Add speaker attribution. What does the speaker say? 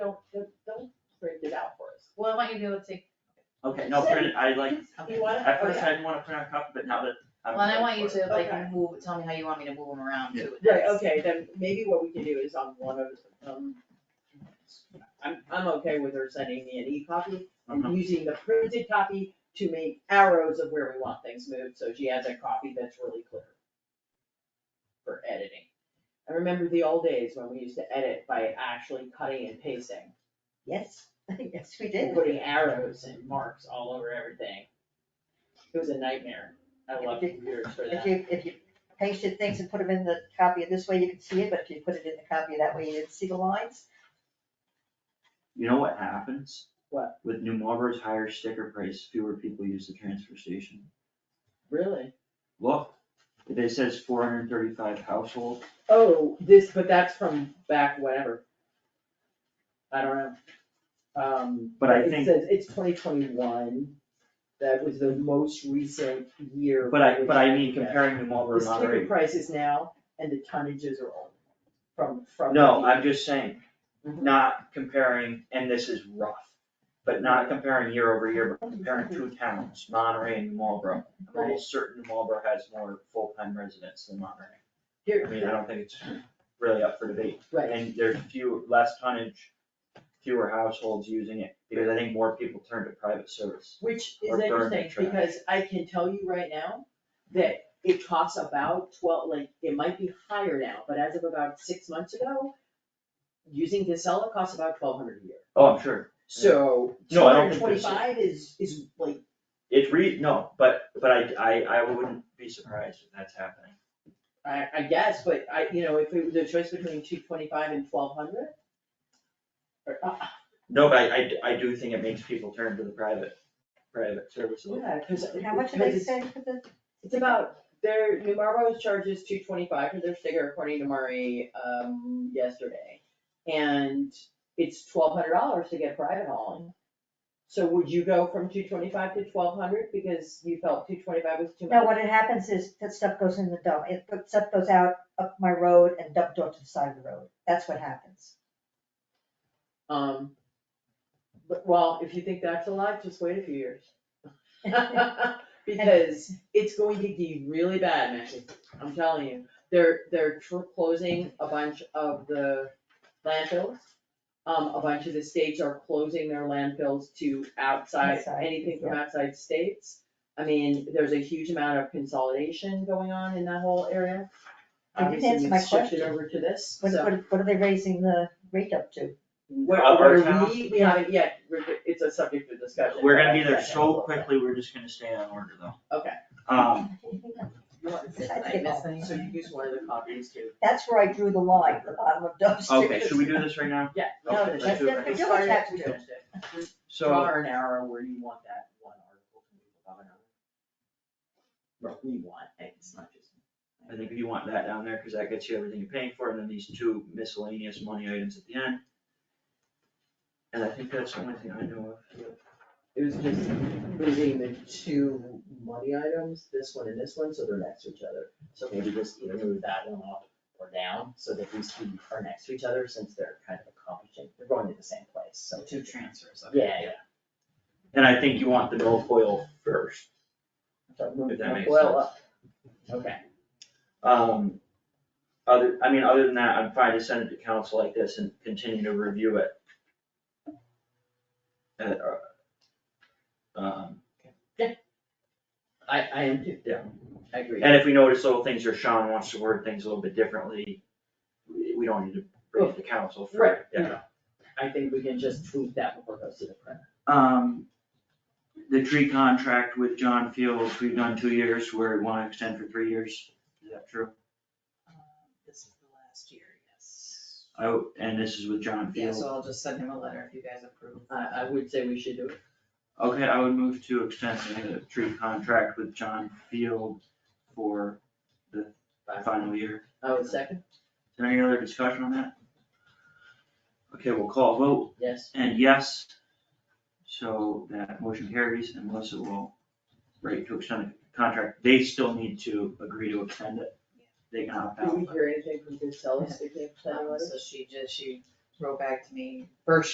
Speaker 1: I want you to be able to take,
Speaker 2: Okay, no, print, I like,
Speaker 1: okay.
Speaker 3: You wanna?
Speaker 2: at first
Speaker 3: Okay.
Speaker 2: I didn't wanna print on copy, but now that I'm.
Speaker 1: Oh, Well, and I want you
Speaker 2: ready for it.
Speaker 1: to
Speaker 3: Okay.
Speaker 1: like move, tell me how you want me to move them around too.
Speaker 3: Right, okay, then maybe what we can do is on one of, um, I'm, I'm okay with her sending me an e-copy
Speaker 2: Mhm.
Speaker 3: and using the printed copy to make arrows of where we want things moved, so she has a copy that's really clear for editing. I remember the old days when we used to edit by actually cutting and pasting,
Speaker 4: Yes, yes, we
Speaker 3: and
Speaker 4: did.
Speaker 3: putting arrows and marks all over everything. It was a nightmare. I loved computers for
Speaker 4: If
Speaker 3: that.
Speaker 4: you, if you pasted things and put them in the copy this way, you could see it, but if you put it in the copy that way, you didn't see the lines.
Speaker 2: You know what happens?
Speaker 3: What?
Speaker 2: With New Marlboro's higher sticker price, fewer people use the transfer station.
Speaker 3: Really?
Speaker 2: Look, it says four hundred and thirty-five households.
Speaker 3: Oh, this, but that's from back whenever. I don't know. Um.
Speaker 2: But I
Speaker 3: It
Speaker 2: think-
Speaker 3: says it's twenty twenty-one. That was the most recent year.
Speaker 2: But I,
Speaker 3: which-
Speaker 2: but I mean comparing New Marlboro
Speaker 3: The
Speaker 2: to
Speaker 3: sticker
Speaker 2: Monterey.
Speaker 3: prices now and the tonnages are old from, from.
Speaker 2: No,
Speaker 3: the-
Speaker 2: I'm just saying,
Speaker 1: Mm-hmm.
Speaker 3: Mhm.
Speaker 2: not comparing, and this is rough, but not comparing year over year,
Speaker 1: Mm-hmm.
Speaker 2: but comparing two towns, Monterey and New Marlboro. I'm almost certain New Marlboro has more full-time residents than Monterey. I mean, I
Speaker 3: Here,
Speaker 2: don't think it's really up for debate.
Speaker 3: right,
Speaker 2: And there's few, less tonnage, fewer households using it, because I think more people turn to private service.
Speaker 3: which is
Speaker 2: Or burn the
Speaker 3: interesting
Speaker 2: trash.
Speaker 3: because I can tell you right now that it costs about twelve, like, it might be higher now, but as of about six months ago, using Casella costs about twelve hundred a year.
Speaker 2: Oh, I'm sure.
Speaker 3: So two
Speaker 2: No, I don't
Speaker 3: hundred
Speaker 2: think there's a-
Speaker 3: twenty-five is, is like,
Speaker 2: It re, no, but, but I, I, I wouldn't be surprised if that's happening.
Speaker 3: I, I guess, but I, you know, if it was a choice between two twenty-five and twelve hundred? Or, uh,
Speaker 2: No, but I, I, I do think it makes people turn to the private, private service. a little.
Speaker 3: yeah, cause.
Speaker 4: How much did
Speaker 3: because
Speaker 4: they
Speaker 3: it's-
Speaker 4: say for the?
Speaker 3: It's about, their, New Marlboro charges two twenty-five for their sticker according to Murray, um, yesterday. And it's twelve hundred dollars to get private hauling. So would you go from two twenty-five to twelve hundred because you felt two twenty-five was too much?
Speaker 4: No, what it happens is that stuff goes in the dump. It, put- stuff goes out up my road and dumped off to the side of the road. That's what happens.
Speaker 3: Um, but, well, if you think that's a lot, just wait a few years. Because it's going to be really bad, Maggie, I'm telling you. They're, they're tr- closing a bunch of the landfills. Um, a bunch of the states are closing their landfills to outside,
Speaker 4: Outside,
Speaker 3: anything from outside states. I mean, there's a huge amount of consolidation going on in that whole area.
Speaker 4: I didn't answer my
Speaker 3: Obviously, we've shifted
Speaker 4: question.
Speaker 3: over to this,
Speaker 4: What,
Speaker 3: so.
Speaker 4: what, what are they raising the rate up to?
Speaker 3: Where,
Speaker 2: Of our
Speaker 3: where
Speaker 2: town?
Speaker 3: we, we haven't yet, we're, it's a subject of discussion.
Speaker 2: We're
Speaker 3: but
Speaker 2: gonna be
Speaker 3: I-
Speaker 2: there
Speaker 3: I-
Speaker 2: so quickly, we're just gonna stay on order though.
Speaker 3: Okay.
Speaker 2: Um,
Speaker 4: I missed
Speaker 1: anything?
Speaker 3: So you use one of the copies too.
Speaker 4: That's where I drew the line, the bottom of dumpster.
Speaker 2: okay, should we do this right now?
Speaker 3: Yeah.
Speaker 2: Okay,
Speaker 4: No,
Speaker 2: let's
Speaker 4: that's,
Speaker 2: do it.
Speaker 4: that's the village has to do.
Speaker 2: So,
Speaker 3: an arrow where you want that one article to move above another. What we want, it's not just.
Speaker 2: I think if you want that down there, cause that gets you everything you're paying for, and then these two miscellaneous money items at the end. And I think that's the only thing I know
Speaker 3: It was just moving the two money items, this one and this one, so they're next to each other. So maybe just either move that one up or down, so that these two are next to each other, since they're kind of accomplishing, they're going to the same place, so.
Speaker 1: Two transfers, okay.
Speaker 3: Yeah, yeah.
Speaker 2: of. And I think you want the milfoil first.
Speaker 3: So move
Speaker 2: If that
Speaker 3: the
Speaker 2: makes
Speaker 3: oil up. Okay.
Speaker 2: Um, other, I mean, other than that, I'm fine to send it to council like this and continue to review it. At, uh, um,
Speaker 3: I, I am too.
Speaker 2: Yeah.
Speaker 3: I agree.
Speaker 2: And if we notice little things or Sean wants to word things a little bit differently, we we don't need to bring it to council
Speaker 3: Right,
Speaker 2: for, yeah.
Speaker 3: I think we can just tweak that before it goes to the print.
Speaker 2: Um, the tree contract with John Fields, we've done two years, where we wanna extend for three years, is that true?
Speaker 1: Um, This is the last year, yes.
Speaker 2: Oh, and this is with John
Speaker 1: Yeah,
Speaker 2: Fields.
Speaker 1: so I'll just send him a letter if you guys approve.
Speaker 3: I, I would say we should do it.
Speaker 2: Okay, I would move to extend the tree contract with John Field for the final year.
Speaker 3: I would Oh, second,
Speaker 2: Is there any other discussion on that? Okay, we'll call a vote.
Speaker 3: yes.
Speaker 2: And yes, so that motion carries and Melissa will write to extend the contract. They still need to agree to extend it. They can opt
Speaker 3: Did
Speaker 2: out.
Speaker 3: we hear anything from Giselle, speaking of
Speaker 1: Um, So she just, she wrote back to me, or